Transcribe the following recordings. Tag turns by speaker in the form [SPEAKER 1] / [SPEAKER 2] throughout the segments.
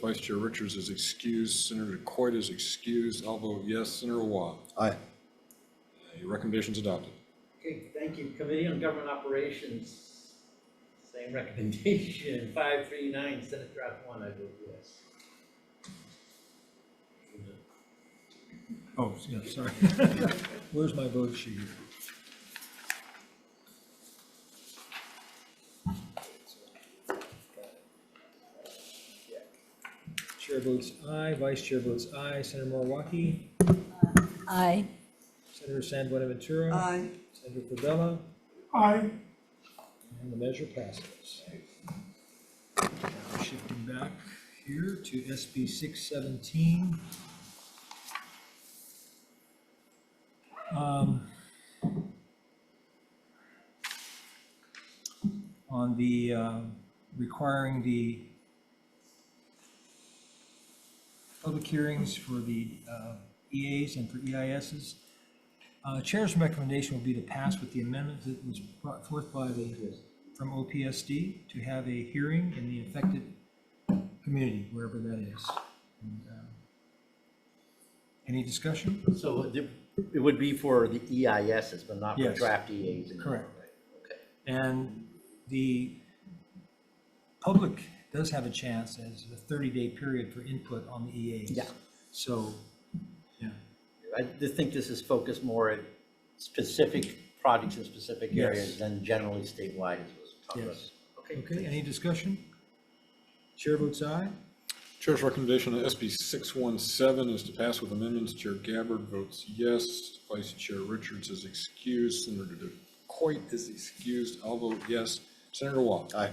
[SPEAKER 1] Vice Chair Richards is excused, Senator Coit is excused. I'll vote yes, Senator Wah.
[SPEAKER 2] Aye.
[SPEAKER 1] Your recommendation's adopted.
[SPEAKER 3] Okay, thank you. Committee on Government Operations, same recommendation, five, three, nine, Senate Draft One, I vote yes.
[SPEAKER 4] Oh, yeah, sorry. Where's my vote sheet? Chair votes aye, vice chair votes aye, Senator Morawaki,
[SPEAKER 5] Aye.
[SPEAKER 4] Senator San Buenaventura.
[SPEAKER 6] Aye.
[SPEAKER 4] Senator Favela,
[SPEAKER 6] Aye.
[SPEAKER 4] and the measure passes. Now Shifting back here to SB six seventeen. Um, On the, um, requiring the public hearings for the uh, EAs and for E EISs. Uh, Chair's recommendation will be to pass with the amendment that was brought forth by the, from OPSD, to have a hearing in the affected community, wherever that is. And, um, Any discussion?
[SPEAKER 3] So it- it would be for the E EISs, but not for
[SPEAKER 4] Yes.
[SPEAKER 3] draft EAs? and-
[SPEAKER 4] Correct.
[SPEAKER 3] Okay.
[SPEAKER 4] And the public does have a chance as a 30-day period for input on the EAs.
[SPEAKER 3] Yeah.
[SPEAKER 4] So, yeah,
[SPEAKER 3] I just think this is focused more at specific projects in specific
[SPEAKER 4] Yes.
[SPEAKER 3] areas than generally statewide as was talked about.
[SPEAKER 4] Yes.
[SPEAKER 3] Okay,
[SPEAKER 4] okay, any discussion? Chair votes aye.
[SPEAKER 1] Chair's recommendation on SB 617 is to pass with amendments. Chair Gabbard votes yes. Vice Chair Richards is excused. Senator Coit is excused. I'll vote yes. Senator Wah.
[SPEAKER 2] Aye.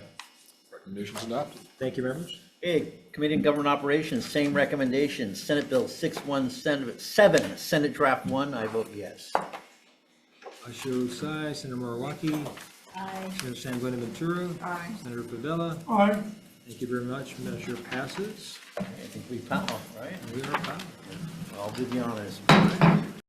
[SPEAKER 1] Recommendation's adopted.
[SPEAKER 4] Thank you, members.
[SPEAKER 3] Okay, Committee on Government Operations, same recommendation, Senate Bill 617, Senate Draft 1, I vote yes.
[SPEAKER 4] Vice Chair votes aye, Senator Morawaki,
[SPEAKER 5] Aye.
[SPEAKER 4] Senator San Buenaventura.
[SPEAKER 6] Aye.
[SPEAKER 4] Senator Pavella,
[SPEAKER 6] Aye.
[SPEAKER 4] thank you very much, measure passes,
[SPEAKER 3] I think we found, right?
[SPEAKER 4] we are proud.
[SPEAKER 3] I'll do the honors.